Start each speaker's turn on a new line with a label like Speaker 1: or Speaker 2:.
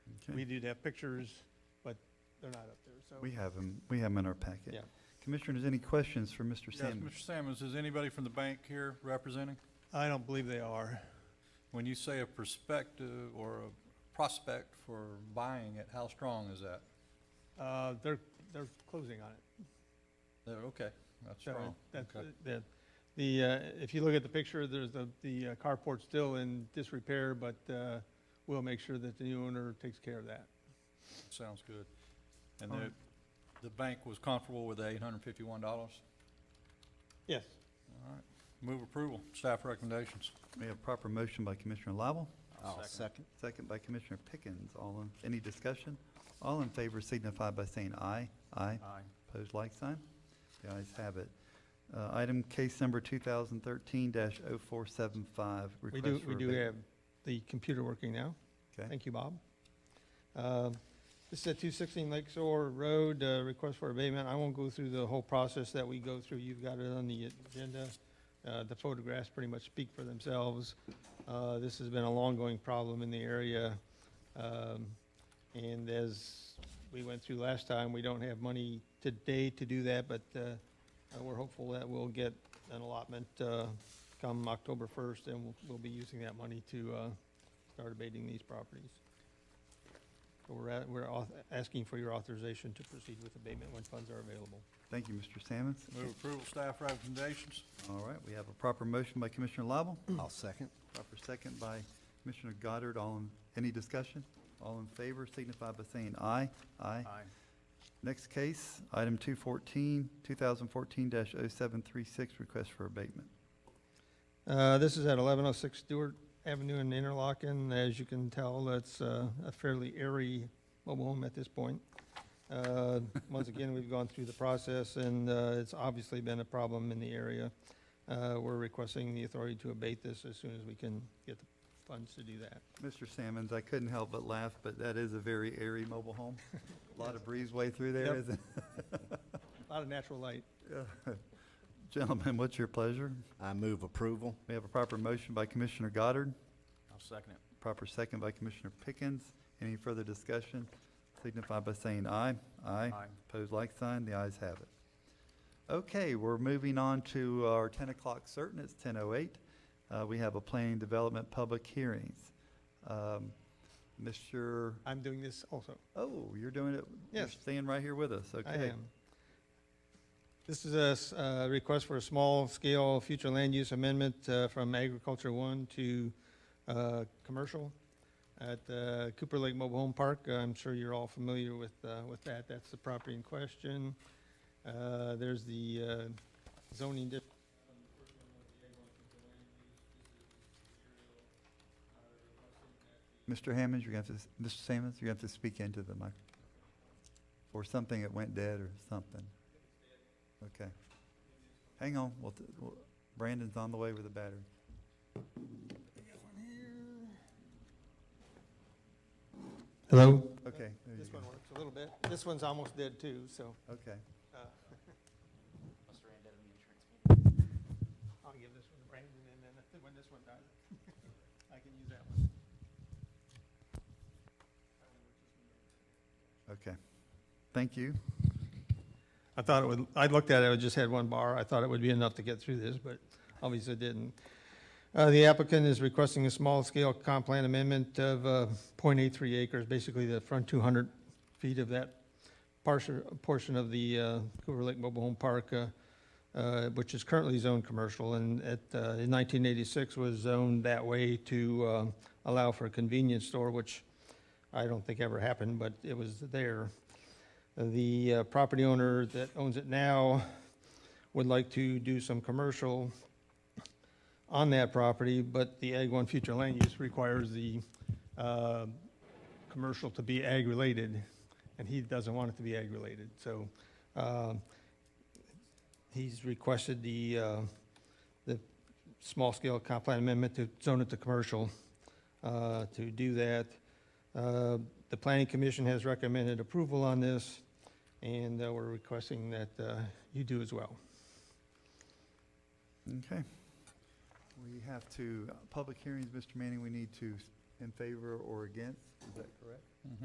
Speaker 1: We did have pictures, but they're not up there, so.
Speaker 2: We have them, we have them in our packet.
Speaker 1: Yeah.
Speaker 2: Commissioners, any questions for Mr.
Speaker 3: Yes,
Speaker 2: Sandman?
Speaker 3: Mr. Sammons, is anybody from the bank here representing?
Speaker 1: I don't believe they are.
Speaker 3: When you say a perspective or a prospect for buying it, how strong is that?
Speaker 1: Uh, they're, they're closing on it.
Speaker 3: There, okay, that's
Speaker 1: So
Speaker 3: strong.
Speaker 1: That's,
Speaker 3: Okay.
Speaker 1: the, the, uh, if you look at the picture, there's the, the uh, carport's still in disrepair, but, uh, we'll make sure that the new owner takes care of that.
Speaker 3: Sounds good. And
Speaker 2: All
Speaker 3: the,
Speaker 2: right.
Speaker 3: the bank was comfortable with the eight hundred and fifty-one dollars?
Speaker 1: Yes.
Speaker 3: All right, move approval, staff recommendations.
Speaker 2: We have proper motion by Commissioner Lible,
Speaker 4: I'll second.
Speaker 2: second by Commissioner Pickens. All in, any discussion? All in favor signify by saying aye. Aye.
Speaker 4: Aye.
Speaker 2: Opposed, like sign. The ayes have it. Uh, Item case number 2013-0475.
Speaker 1: We
Speaker 2: request
Speaker 1: do,
Speaker 2: for
Speaker 1: we do
Speaker 2: abate-
Speaker 1: have the computer working now.
Speaker 2: Okay,
Speaker 1: Thank you, Bob. Um, This is at 216 Lake Shore Road, uh, request for abatement. I won't go through the whole process that we go through. You've got it on the agenda. Uh, The photographs pretty much speak for themselves. Uh, This has been a long-going problem in the area. Um, And as we went through last time, we don't have money today to do that, but uh, uh, we're hopeful that we'll get an allotment uh, come October 1st, and we'll- we'll be using that money to uh, start abating these properties. So we're, at- we're auth- asking for your authorization to proceed with abatement when funds are available.
Speaker 2: thank you, Mr. Sammons.
Speaker 3: Move approval, staff recommendations.
Speaker 2: All right, we have a proper motion by Commissioner Lible,
Speaker 4: I'll second.
Speaker 2: proper second by Commissioner Goddard. All in, any discussion? All in favor signify by saying aye. Aye.
Speaker 4: Aye.
Speaker 2: Next case, item 214, 2014-0736, request for abatement.
Speaker 1: Uh, This is at 1106 Stewart Avenue in Interlochen. As you can tell, that's uh, a fairly airy mobile home at this point. Uh, Once again, we've gone through the process, and uh, it's obviously been a problem in the area. Uh, We're requesting the authority to abate this as soon as we can get the funds to do that.
Speaker 2: Mr. Sammons, I couldn't help but laugh, but that is a very airy mobile home. A Lot of breezeway through there,
Speaker 1: Yep.
Speaker 2: isn't
Speaker 1: A lot of natural light.
Speaker 2: it? Gentlemen, what's your pleasure?
Speaker 4: I move approval.
Speaker 2: We have a proper motion by Commissioner Goddard,
Speaker 3: I'll second it.
Speaker 2: proper second by Commissioner Pickens. Any further discussion? Signify by saying aye. Aye. Opposed, like sign. The ayes have it. Okay, we're moving on to our 10 o'clock certain. It's 10:08. Uh, We have a planning development public hearings. Um, Mr.,
Speaker 1: I'm doing this also.
Speaker 2: oh, you're doing it? You're
Speaker 1: Yes.
Speaker 2: staying right here with us, okay?
Speaker 1: I am. This is a s- uh, request for a small-scale future land use amendment uh, from Agriculture One to uh, Commercial at uh, Cooper Lake Mobile Home Park. I'm sure you're all familiar with, uh, with that. That's the property in question. Uh, There's the uh, zoning dip.
Speaker 2: Mr. Hammond, you're going to, have to Mr. Sammons, you're going to have to speak into the mic. Or something, it went dead or something. Okay. Hang on, we'll t- we'll- Brandon's on the way with the battery.
Speaker 1: Hello?
Speaker 2: Okay, there you
Speaker 1: This
Speaker 2: go.
Speaker 1: one works a little bit. This one's almost dead too, so
Speaker 2: Okay.
Speaker 1: uh, I'll give this one to Brandon, and then if- when this one dies, I can use that one.
Speaker 2: Okay. Thank you.
Speaker 1: I thought it would, I looked at it, it just had one bar. I thought it would be enough to get through this, but obviously it didn't. Uh, the applicant is requesting a small-scale comp plan amendment of, uh, 0.83 acres, basically the front two hundred feet of that partial, portion of the, uh, Cooper Lake Mobile Home Park, uh, uh, which is currently zoned commercial, and at, uh, in nineteen eighty-six was zoned that way to, uh, allow for a convenience store, which I don't think ever happened, but it was there. The uh, property owner that owns it now would like to do some commercial on that property, but the Ag One future land use requires the uh, commercial to be ag-related, and he doesn't want it to be ag-related. So um, he's requested the, uh, the small-scale comp plan amendment to zone it to commercial uh, to do that. Uh, the planning commission has recommended approval on this, and uh, we're requesting that uh, you do as well.
Speaker 2: Okay. We have uh, to, public hearings, Mr. Manning, we need to s- in favor or against, is that correct?